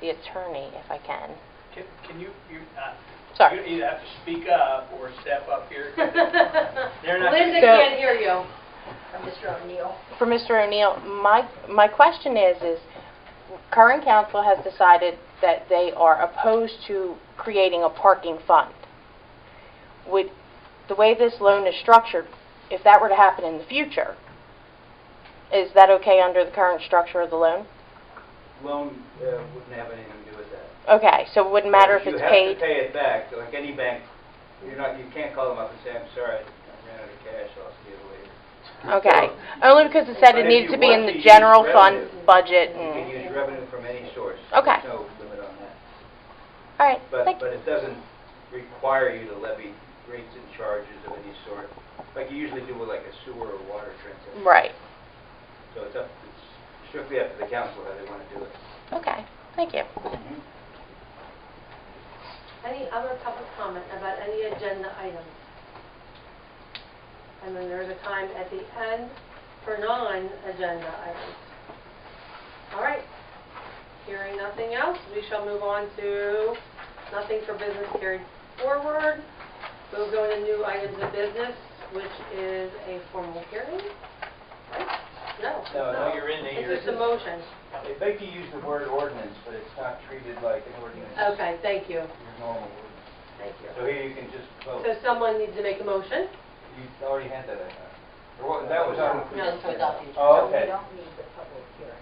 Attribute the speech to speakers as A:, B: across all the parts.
A: the attorney if I can.
B: Can can you, you, uh,
A: Sorry.
B: you either have to speak up or step up here. They're not-
C: Linda
A: So-
C: can't hear you. Mr. O'Neill.
A: For Mr. O'Neill, my, my question is, is current council has decided that they are opposed to creating a parking fund. With, the way this loan is structured, if that were to happen in the future, is that okay under the current structure of the loan?
D: Loan uh, wouldn't have anything to do with that.
A: Okay, so it wouldn't matter if it's
D: You have
A: paid?
D: to pay it back, like any bank, you're not, you can't call them up and say, I'm sorry, I ran out of cash, I'll see you later.
A: Okay, only because it said it
D: But if
A: needed
D: you
A: to be in
D: want to
A: the
D: use
A: general fund
D: revenue,
A: budget
D: You can
A: and,
D: use revenue from any source.
A: Hmm. Okay.
D: There's no limit on that.
A: all right,
D: But,
A: thank you.
D: but it doesn't require you to levy rates and charges of any sort, like you usually do with like a sewer or water transaction.
A: Right,
D: So it's up, it's strictly up to the council how they want to do it.
A: okay, thank you.
C: Any other public comment about any agenda items? And then there's a time at the end for non-agenda items. All right. Hearing nothing else, we shall move on to nothing for business carried forward. We'll go into new items of business, which is a formal hearing, right? No. it's
D: No, no,
C: not.
B: you're in there, you're
C: It's just
D: in
C: a
D: there.
C: motion.
D: They make you use the word ordinance, but it's not treated like an ordinance,
C: Okay, thank you,
D: your normal word.
C: thank
D: So
C: you.
D: here you can just vote.
C: So someone needs to make a motion?
D: You already had that, I thought. Or what- That was on...
C: No.
D: Oh, okay.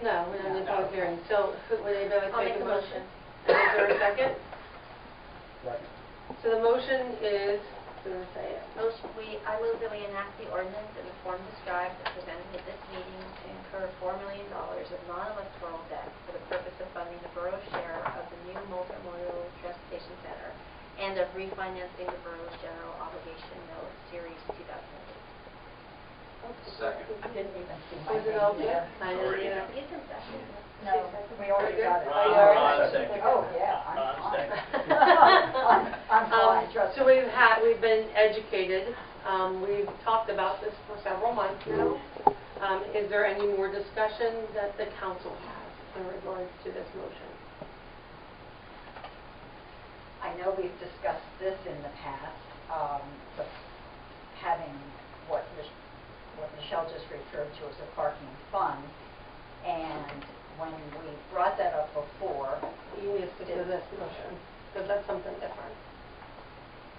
C: No, we don't need public hearing, so who- would anybody
E: I'll
C: like to
E: make
C: make a
E: the
C: motion? And Is there a second? So the motion is, I'm going to say it, Oh,
E: Motion, we, I move that we enact the ordinance in the form described and presented at this meeting to incur $4 million of non-electoral debt for the purpose of funding the borough share of the new multimodal transportation center and of refinancing the borough's general obligation note series 2008.
F: Second.
C: was it all good? I didn't
B: Already.
C: get it.
E: It's in session.
G: No, we already "Oh, got it.
C: Are you all right?
B: Ron second.
G: Oh, yeah, I'm
B: Ron
G: fine.
B: second.
G: I'm- I'm fine,
C: Um,
G: trust
C: So
G: me.
C: we've had, we've been educated, um, we've talked about this for several months now. Um, Is there any more discussion that the council has in regards to this motion?
G: I know we've discussed this in the past, um, but having what Mich- what Michelle just referred to as a parking fund. And when we brought that up before,
C: You need to do this motion, because that's something different.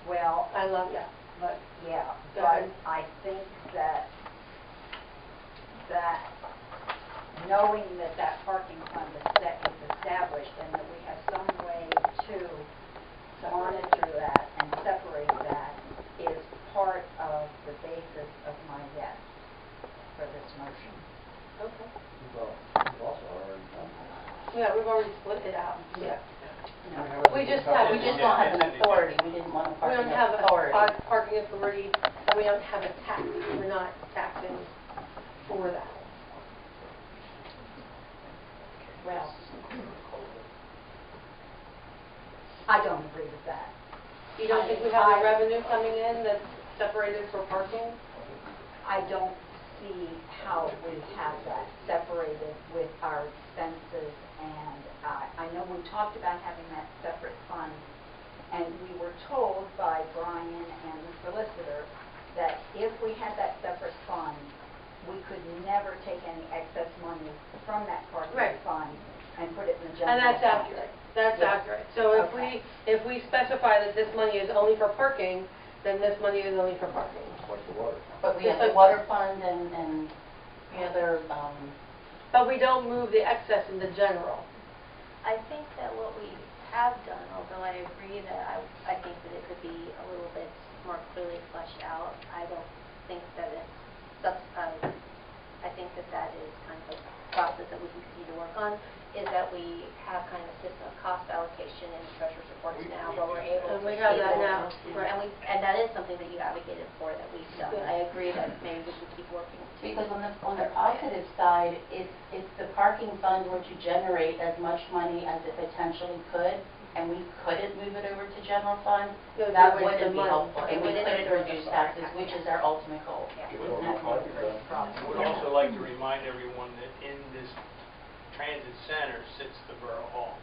G: well,
C: I love that.
G: But, yeah,
C: Go
G: but
C: ahead.
G: I think that, that knowing that that parking fund is set, is established, and that we have some way to monitor that and separate that is part of the basis of my yes for this motion.
C: Okay.
F: We've also already done
C: Yeah, we've already split it out. Yeah.
F: that.
C: We just have,
B: We just don't have an authority.
H: We didn't want to
C: we don't have a par- parking authority, and we don't have a tax, we're not taxing for that.
G: Well, I don't agree with that.
C: You don't think we have the revenue coming in that's separated for parking?
G: I don't see how we have that separated with our expenses, and I I know we talked about having that separate fund, and we were told by Brian and the solicitor that if we had that separate fund, we could never take any excess money from that
C: Right.
G: parking fund and put it in the general.
C: And that's
G: fund.
C: accurate, that's
G: Yeah.
C: accurate. So if we,
G: Okay.
C: if we specify that this money is only for parking, then this money is only for parking.
F: What's the water?
H: But we have the water fund and, and the other, um,
C: But we don't move the excess into general.
E: I think that what we have done, although I agree that I, I think that it could be a little bit more clearly fleshed out, I don't think that it's, subs- um, I think that that is kind of a process that we can continue to work on, is that we have kind of a system of cost allocation and treasurer's reports
B: We-
E: now,
B: we do that.
C: And
E: where we're able to.
C: we have that
E: table-
C: now, right.
E: And we, and that is something that you advocated for, that we've done.
C: Yeah.
E: I agree that maybe we should keep working to.
H: because on the, on the positive side, if, if the parking fund were to generate as much money as it potentially could, and we couldn't move it over to general fund,
C: It would be a
H: that
C: waste of
H: wouldn't be
C: money.
H: helpful.
E: It
H: And we
E: wouldn't be
H: couldn't
E: helpful.
H: reduce taxes, which is our ultimate goal.
E: Yeah.
H: And that would be a great problem.
B: I would also like to remind everyone that in this transit center sits the Borough Hall.